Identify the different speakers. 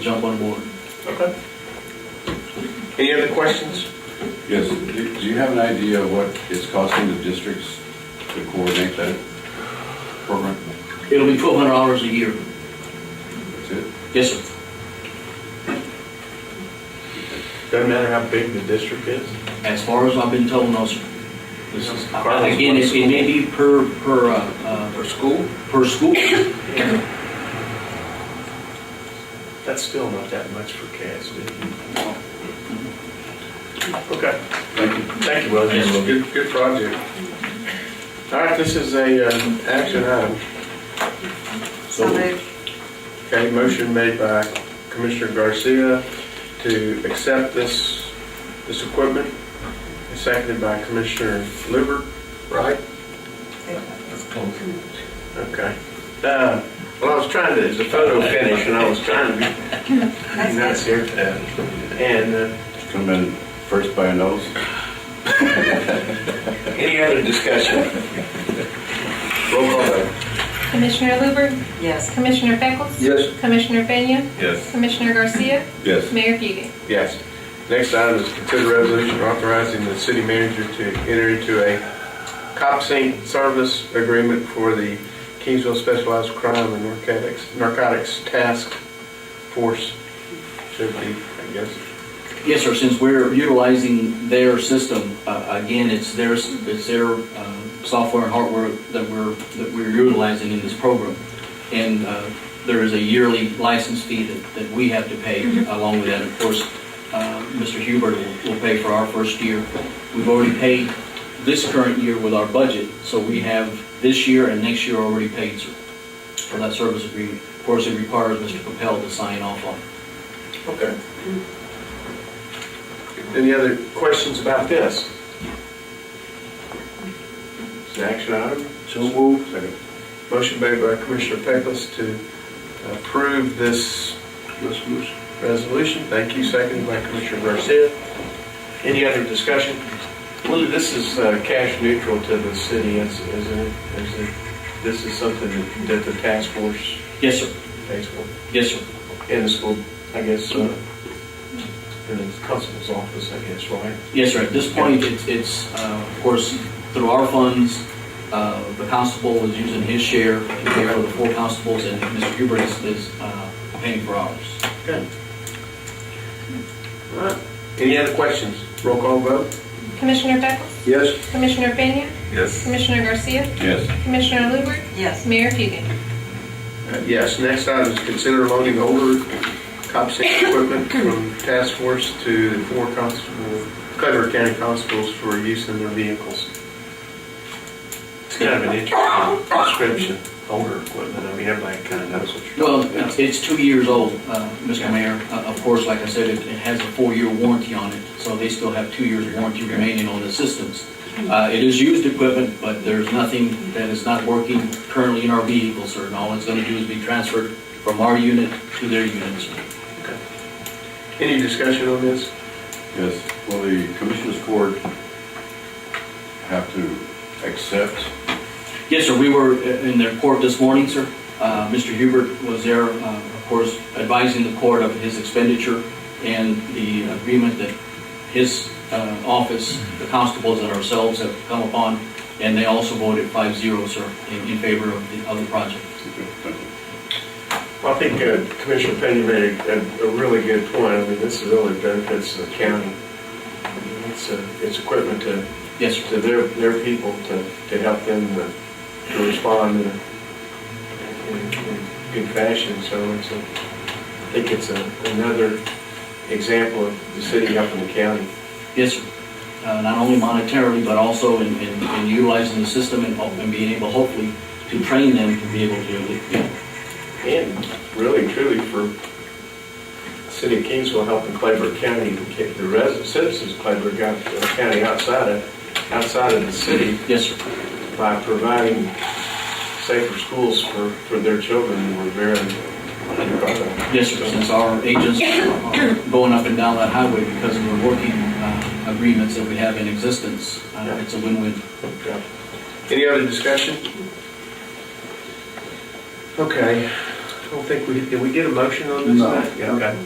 Speaker 1: jump on board.
Speaker 2: Okay. Any other questions?
Speaker 3: Yes, do do you have an idea what it's costing the districts to coordinate that program?
Speaker 1: It'll be twelve hundred dollars a year.
Speaker 3: That's it?
Speaker 1: Yes, sir.
Speaker 4: Doesn't matter how big the district is?
Speaker 1: As far as I've been told, no, sir.
Speaker 4: This is Carlos.
Speaker 1: Again, it it may be per, per, uh, uh,
Speaker 2: For school?
Speaker 1: per school.
Speaker 4: That's still not that much for KSB.
Speaker 2: Okay.
Speaker 3: Thank you.
Speaker 4: Thank you, Willie.
Speaker 2: Yes.
Speaker 4: Good, good project. All right, this is a, um, action item.
Speaker 5: So moved.
Speaker 4: Okay, motion made by Commissioner Garcia to accept this, this equipment, and seconded by Commissioner Luber, right? Okay. Uh, Well, I was trying to, it's a photo finish, and I was trying to be be nice
Speaker 5: That's it.
Speaker 4: here. And uh,
Speaker 3: Come in first by a nose?
Speaker 2: Any other discussion?
Speaker 4: roll call vote.
Speaker 6: Commissioner Luber?
Speaker 5: Yes.
Speaker 6: Commissioner Beckles?
Speaker 2: Yes.
Speaker 6: Commissioner Fenya?
Speaker 3: Yes. Commissioner
Speaker 6: Commissioner Garcia?
Speaker 3: Yes.
Speaker 6: Mayor Buhey?
Speaker 4: Yes. Next item is consider resolution authorizing the city manager to enter into a cop sync service agreement for the Kingsville Specialized Crime and Narcotics, Narcotics Task Force. Should be, I guess.
Speaker 1: Yes, sir, since we're utilizing their system, uh, again, it's their, it's their uh, software and hardware that we're, that we're utilizing in this program. And uh, there is a yearly license fee that, that we have to pay along with that. Of course, uh, Mr. Hubert will, will pay for our first year. We've already paid this current year with our budget, so we have this year and next year already paid sir, for that service agreement. Of course, it requires Mr. Capel to sign off on it.
Speaker 2: Okay.
Speaker 4: Any other questions about this? It's an action item.
Speaker 2: So moved.
Speaker 4: Second. Motion made by Commissioner Pecos to approve this
Speaker 2: Resolution.
Speaker 4: resolution. Thank you, seconded by Commissioner Garcia. Any other discussion? Well, this is uh, cash neutral to the city, is- isn't it? Is it? This is something that- that the task force
Speaker 1: Yes, sir.
Speaker 4: pays for,
Speaker 1: Yes, sir.
Speaker 4: in the school, I guess, uh, in the constable's office, I guess, right?
Speaker 1: Yes, sir. At this point, it's, it's, uh, of course, through our funds, uh, the constable is using his share to pay for the four constables, and Mr. Huber is, is uh, paying for ours.
Speaker 4: Good. All right. Any other questions? Roll call vote?
Speaker 6: Commissioner Beckles?
Speaker 4: Yes.
Speaker 6: Commissioner Fenya?
Speaker 3: Yes.
Speaker 6: Commissioner Garcia?
Speaker 3: Yes.
Speaker 6: Commissioner Luber?
Speaker 5: Yes.
Speaker 6: Mayor Buhey?
Speaker 4: Uh, Yes, next item is consider loading older cop safety equipment from task force to the four constable, Clever County constables for use in their vehicles. It's kind of an interesting description, older equipment, I mean, everybody kind of knows what you're
Speaker 1: Well,
Speaker 4: talking
Speaker 1: it's,
Speaker 4: about.
Speaker 1: it's two years old, uh, Mr. Mayor. Uh, Of course, like I said, it it has a four-year warranty on it, so they still have two years warranty remaining on the systems. Uh, It is used equipment, but there's nothing that is not working currently in our vehicles, sir, and all it's going to do is be transferred from our unit to their unit, sir.
Speaker 4: Any discussion on this?
Speaker 3: Yes. Will the commissioners court have to accept?
Speaker 1: Yes, sir, we were in their court this morning, sir. Uh, Mr. Hubert was there, uh, of course, advising the court of his expenditure and the agreement that his uh, office, the constables and ourselves have come upon, and they also voted 5-0, sir, in in favor of the, of the project.
Speaker 3: Okay, thank you.
Speaker 4: Well, I think uh, Commissioner Pena made a, a really good point, I mean, this really benefits the county. It's, uh, it's equipment to
Speaker 1: Yes, sir.
Speaker 4: to their, their people to, to help them to to respond in, a- in in good fashion, so it's a, I think it's a, another example of the city helping the county.
Speaker 1: Yes, sir. Uh, Not only monetarily, but also in- in in utilizing the system and and being able, hopefully, to train them to be able to, you know,
Speaker 4: And really truly for city of Kingsville helping Clayburg County, to get the residents, citizens of Clayburg County outside of, outside of the city
Speaker 1: yes, sir.
Speaker 4: by providing safer schools for, for their children, we're very, very proud of.
Speaker 1: Yes, sir, since our agents are going up and down that highway because of the working uh, agreements that we have in existence, uh,
Speaker 4: Yeah.
Speaker 1: it's a win-win.
Speaker 4: Yeah. Any other discussion? Okay, I don't think we, did we get a motion on this?
Speaker 2: No.
Speaker 4: tonight? Yeah, Okay.